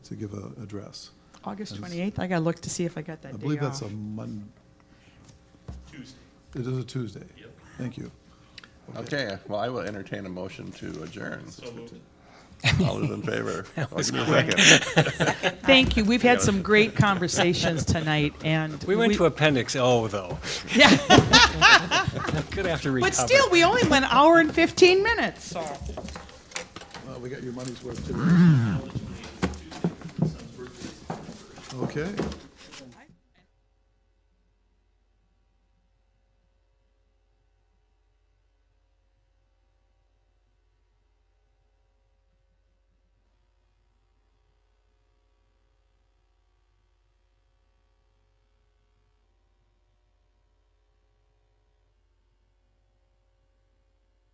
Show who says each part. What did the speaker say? Speaker 1: to give an address.
Speaker 2: August
Speaker 1: That's-
Speaker 2: 28th, I gotta look to see if I got that
Speaker 1: I
Speaker 2: day
Speaker 1: believe that's
Speaker 2: off.
Speaker 1: a Mon,
Speaker 3: Tuesday.
Speaker 1: it is a Tuesday.
Speaker 3: Yep.
Speaker 1: Thank you.
Speaker 4: Okay, well, I will entertain a motion to adjourn.
Speaker 3: So moved.
Speaker 4: All those in favor? I'll give you a second.
Speaker 2: Thank you, we've had some great conversations tonight, and.
Speaker 5: We went to Appendix O, though.
Speaker 2: Yeah,
Speaker 5: Good after recover.
Speaker 2: but still, we only went hour and 15 minutes, so.
Speaker 1: Well, we got your money's worth today. Okay,